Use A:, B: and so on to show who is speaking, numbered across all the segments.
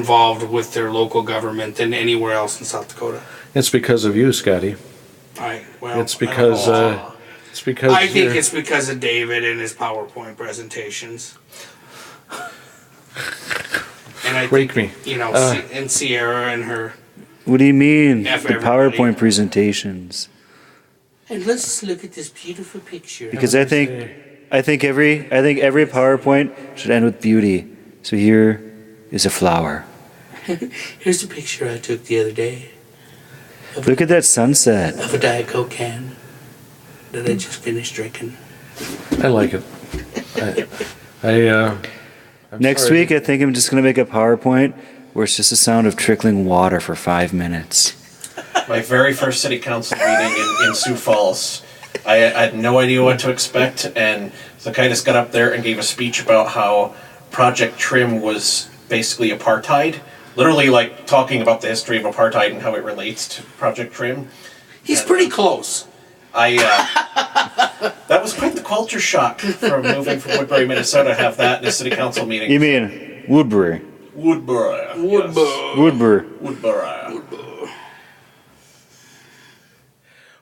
A: involved with their local government than anywhere else in South Dakota.
B: It's because of you, Scotty.
A: I, well,
B: It's because,
A: I don't know.
B: uh, it's because.
A: I think
B: you're-
A: it's because of David and his PowerPoint presentations. And I
B: Wake
A: think,
B: me.
A: you know,
B: Uh.
A: Si- and Sierra and her.
C: What do you mean?
A: Yeah, for
C: the
A: everybody.
C: PowerPoint presentations.
A: And let's look at this beautiful picture.
C: Because I think, I think every, I think every PowerPoint should end with beauty. So here is a flower.
A: Here's a picture I took the other day
C: Look at that sunset.
A: of a Diet Coke can that I just finished drinking.
B: I like it. I, I uh. I'm
C: Next
B: sorry.
C: week, I think I'm just gonna make a PowerPoint where it's just the sound of trickling water for five minutes.
D: my very first city council meeting in, in Sioux Falls. I, I had no idea what to expect, and Zacchaeus got up there and gave a speech about how Project Trim was basically apartheid. Literally, like talking about the history of apartheid and how it relates to Project Trim.
A: He's pretty close.
D: I uh, that was quite the culture shock from moving from Woodbury, Minnesota, to have that in a city council meeting.
C: You mean Woodbury?
D: Woodbury? Yes.
A: Woodbury.
C: Woodbury.
D: Woodbury.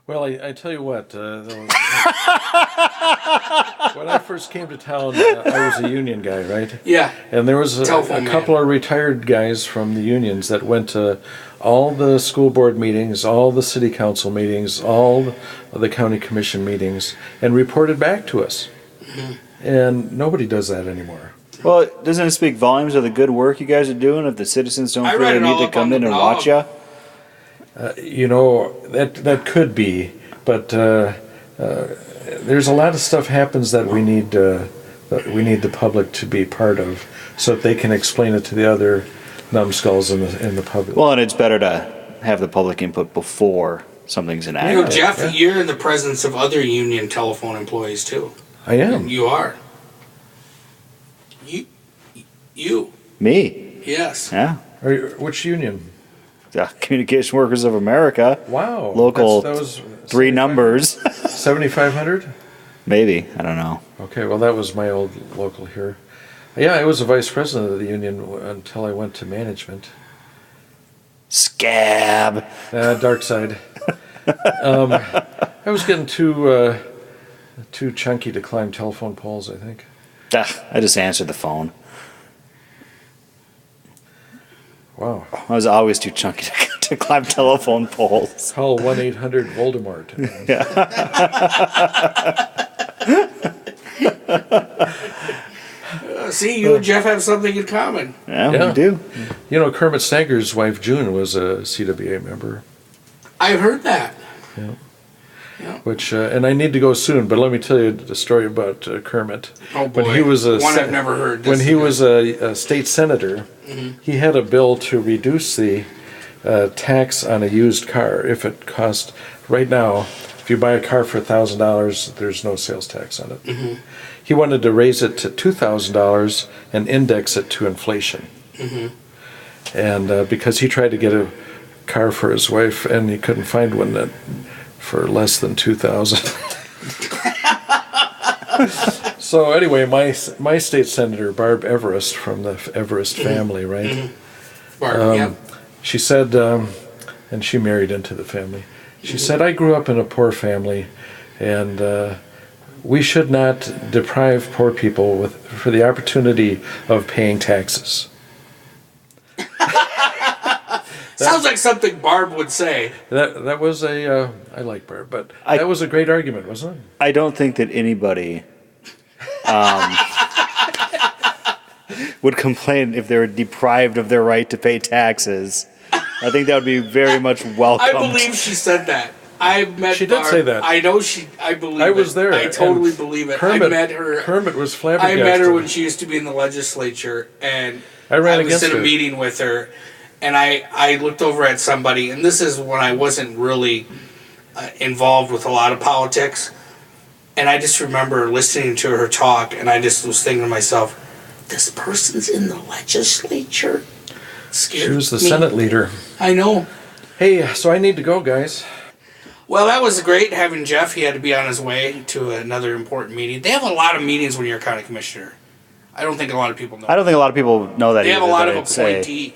B: Well, I, I tell you what. Uh, the- when I first came to town, uh, I was a union guy, right?
A: Yeah.
B: And there was a,
A: Telephone
B: a
A: man.
B: couple of retired guys from the unions that went to all the school board meetings, all the city council meetings, all the county commission meetings, and reported back to us.
A: Mm-hmm.
B: And nobody does that anymore.
C: Well, doesn't it speak volumes of the good work you guys are doing if the citizens don't
A: I
C: feel
A: read
C: they
A: it all
C: need to
A: up on
C: come
A: the
C: in and
A: blog.
C: watch ya?
B: You know that that could be, but uh, uh, there's a lot of stuff happens that we need uh, that we need the public to be part of, so that they can explain it to the other numbskulls in the in the public.
C: Well, and it's better to have the public input before something's
A: You know,
C: enacted.
A: Jeff,
B: yeah.
A: you're in the presence of other union telephone employees too.
B: I am.
A: You are. You, you,
C: Me,
A: yes.
C: yeah.
B: Are you, which union?
C: The Communication Workers of America.
B: Wow.
C: Local
B: That's, that was
C: Three numbers.
B: 7,500?
C: Maybe. I don't know.
B: Okay, well, that was my old local here. Yeah, I was a vice president of the union w- until I went to management.
C: Scab.
B: Uh, dark side. um, I was getting too uh, too chunky to climb telephone poles, I think.
C: Ah, I just answered the phone.
B: Wow.
C: I was always too chunky to, to climb telephone poles.
B: Call 1 800 Voldemort.
A: Uh, see, you and Jeff have something in common.
C: Yeah,
B: Yeah.
C: we do.
B: You know, Kermit Snaggers' wife June was a CWA member,
A: I heard that.
B: which, uh, and I need to go soon, but let me tell you the story about uh, Kermit.
A: Oh boy.
B: When he was a
A: one
B: sen-
A: I've never heard.
B: when
A: This
B: he
A: is- Mm-hmm.
B: was a, a state senator, he had a bill to reduce the uh, tax on a used car if it cost. Right now, if you buy a car for thousand dollars, there's no sales tax on it.
A: Mm-hmm.
B: He wanted to raise it to two thousand dollars and index it to inflation.
A: Mm-hmm.
B: And uh, because he tried to get a car for his wife and he couldn't find one that for less than two thousand. So anyway, my my state senator Barb Everest from the Everest
A: Mm-hmm.
B: family, right?
A: Bart,
B: Um,
A: yeah.
B: She said, um, and she married into the family.
A: Mm-hmm.
B: She said, "I grew up in a poor family, and uh, we should not deprive poor people with for the opportunity of paying taxes."
A: Sounds like something Barb would say.
B: That that was a uh, I like Barb, but
C: I-
B: that was a great argument, wasn't it?
C: I don't think that anybody um, would complain if they were deprived of their right to pay taxes. I think that would be very much
A: I
C: welcomed.
A: believe she said that. I met.
B: She did
A: Barb.
B: say that.
A: I know she. I believe.
B: I was
A: it.
B: there.
A: I totally
B: and
A: believe it.
B: Kermit,
A: I met her.
B: Kermit was
A: I
B: flabbergasted.
A: met her when she used to be in the legislature, and
B: I ran
A: was
B: against
A: in a
B: her.
A: meeting with her, and I I looked over at somebody, and this is when I wasn't really uh, involved with a lot of politics, and I just remember listening to her talk, and I just was thinking to myself, this person's in the legislature. Scared
B: She was the
A: me.
B: Senate leader.
A: I know.
B: Hey, so I need to go, guys.
A: Well, that was great having Jeff. He had to be on his way to another important meeting. They have a lot of meetings when you're a county commissioner. I don't think a lot of people know.
C: I don't think a lot of people know that.
A: they have a
C: either,
A: lot
C: that
A: of
C: I'd say.
A: appointee.